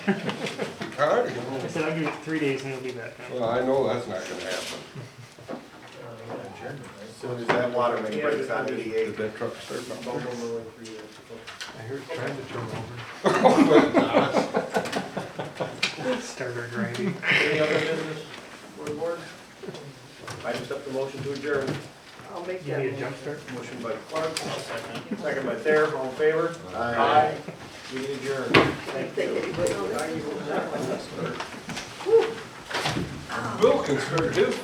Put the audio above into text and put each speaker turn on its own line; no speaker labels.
Howdy.
I said, I'll give it three days and it'll be back.
Well, I know that's not gonna happen.
Soon as that water main breaks on
Did
eighty-eight.
that truck start?
I heard trying to turn over.
Starter grinding.
Any other business for the board? I accept the motion to adjourn.
I'll make
Give
that.
me a
motion.
jump start.
Motion by Clark, second by Thayer, all in favor? Aye. We adjourn.
I think anybody will.
Bill can sure do.